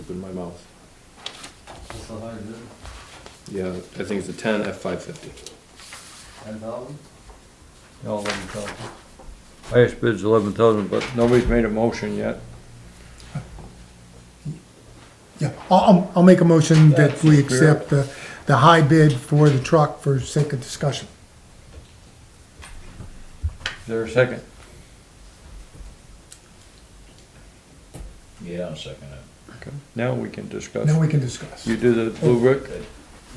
Open my mouth. That's how high it is, Yeah, I think it's a ten F five fifty. ten thousand? No, eleven thousand. Highest bid's eleven thousand, but nobody's made a motion yet. Yeah, I'll- I'll, I'll make a motion that That's the we spirit. accept the, the high bid for the truck for sake of discussion. Is there a second? Yeah, I'll second it. Okay. Now we can discuss. Now we can discuss. You do the blue brick?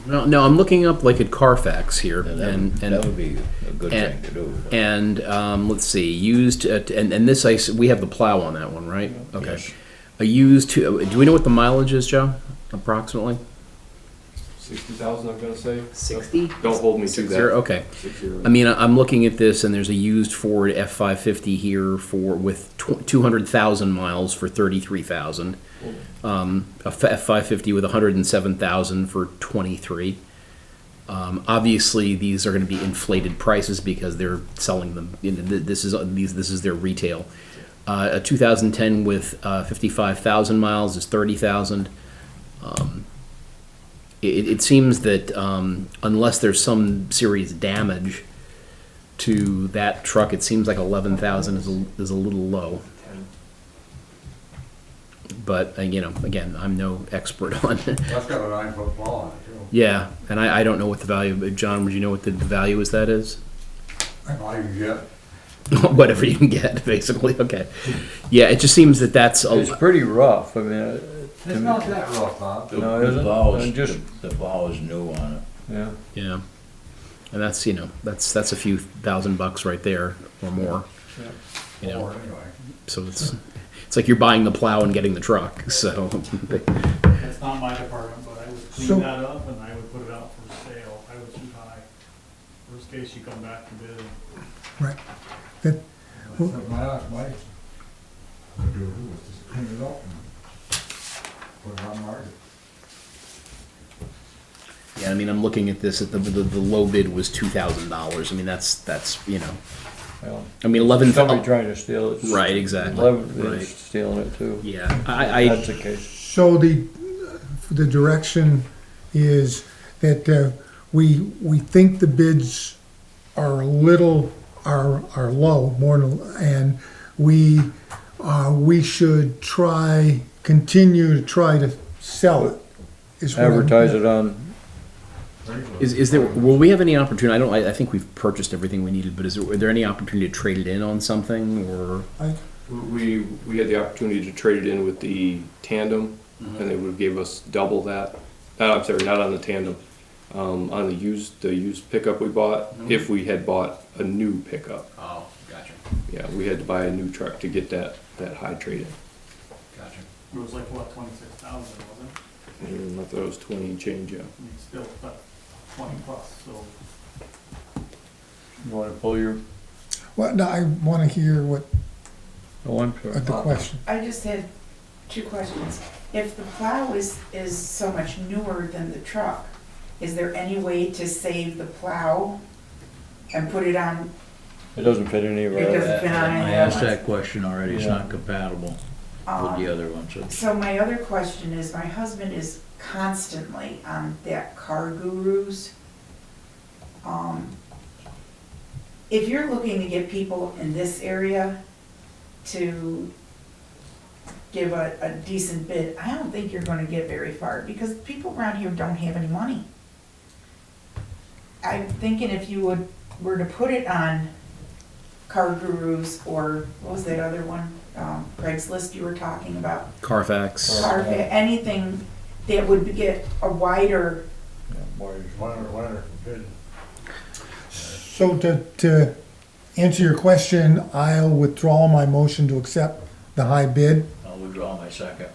No, no, I'm looking up like at Carfax here, and That and would be a good thing and- to do. and um, let's see, used at, and and this I s- we have the plow on that one, right? Okay, Yes. a used. To, do we know what the mileage is, Joe? Approximately Sixty thousand, I'm gonna say. sixty. Don't hold me to Six that. zero. Okay. Six zero. I mean, I- I'm looking at this, and there's a used Ford F550 here for with tw- 200,000 miles for 33,000. Um, a F- F550 with 107,000 for 23. Um, obviously, these are going to be inflated prices because they're selling them. You know, th- this is these this is their retail. Uh, a 2010 with uh, 55,000 miles is 30,000 it, it seems that um, unless there's some serious damage to that truck, it seems like eleven thousand is a, is a little low. But uh, you know, again, I'm no expert on. it. That's got a nine foot plow on it, too. yeah, and I, I don't know what the value. uh, John, would you know what the, the value is? That is Not even yet. whatever you can get, basically. Okay, yeah, it just seems that that's a, It's pretty rough, I mean, it- to It's me, not that rough, huh? The No, it the isn't. vow I'm is, just- the- the vow is new on it. yeah. yeah, and that's you know that's that's a few thousand bucks right there or more. You know. Or anyway. So it's it's like you're buying the plow and getting the truck. So That's not my department, but I would So- clean that up and I would put it out for sale. I was too high. Worst case, you come back and bid. Right. That's what my ass, Mike. I do, is just clean it up and put it on market. yeah, I mean, I'm looking at this. At the, the the low bid was two thousand dollars. I mean, that's that's you know, well, I mean, eleven. Somebody trying to steal it. Right, exactly, Eleven right. is stealing it too. yeah, I, That's I the case. So the, the direction is that uh, we, we think the bids are a little, are, are low, more than, and we, uh, we should try, continue to try to sell it. is what I'm- Advertise it on, is is there will we have any opportunity? I don't. I, I think we've purchased everything we needed, but is there were there any opportunity to trade it in on something or? I- We, we had the opportunity to trade it in with the tandem, and they would give us double that. Uh, I'm sorry, not on the tandem, um, on the used, the used pickup we bought, if we had bought a new pickup. Oh, gotcha, Yeah, we had to buy a new truck to get that, that high trade gotcha. It was like, what, twenty-six thousand, wasn't it? in. And I thought it was twenty and change, yeah. I mean, still, but twenty plus, so. you wanna pull your, Well, no, I want to hear what, oh, I'm uh, sorry. the question. I just had two questions. If the plow is, is so much newer than the truck, is there any way to save the plow and put it on, It doesn't fit any of It our, doesn't- That- been on I it. asked that question already, it's Yeah. not compatible with the um, other one, so. so my other question is, my husband is constantly on that car gurus. Um, If you're looking to get people in this area to give a, a decent bid, I don't think you're gonna get very far, because people around here don't have any money. I'm thinking if you would, were to put it on Car Gurus or, what was that other one? Um, Craigslist you were talking about, Carfax. or anything that would get a wider, yeah, more is- Whatever, whatever, good. So to, to answer your question, I'll withdraw my motion to accept the high bid. I'll withdraw my second.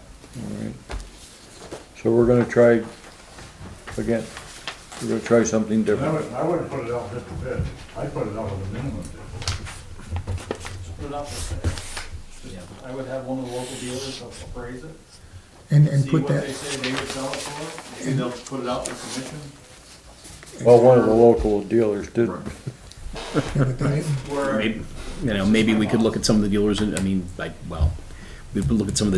So we're gonna try, again, we're gonna try something I different. would, I wouldn't put it out just a bit, I'd put it out with a minimum bid. Just put it out for sale. Just- I would have one of the local dealers appraise it. And, and see put what They that, say they would sell it for, maybe they'll put it out for commission, Well, one of the local dealers did, yeah, but then it- where. Maybe, you know, maybe we could look at some of the dealers. And, I mean, like, well, we could look at some of the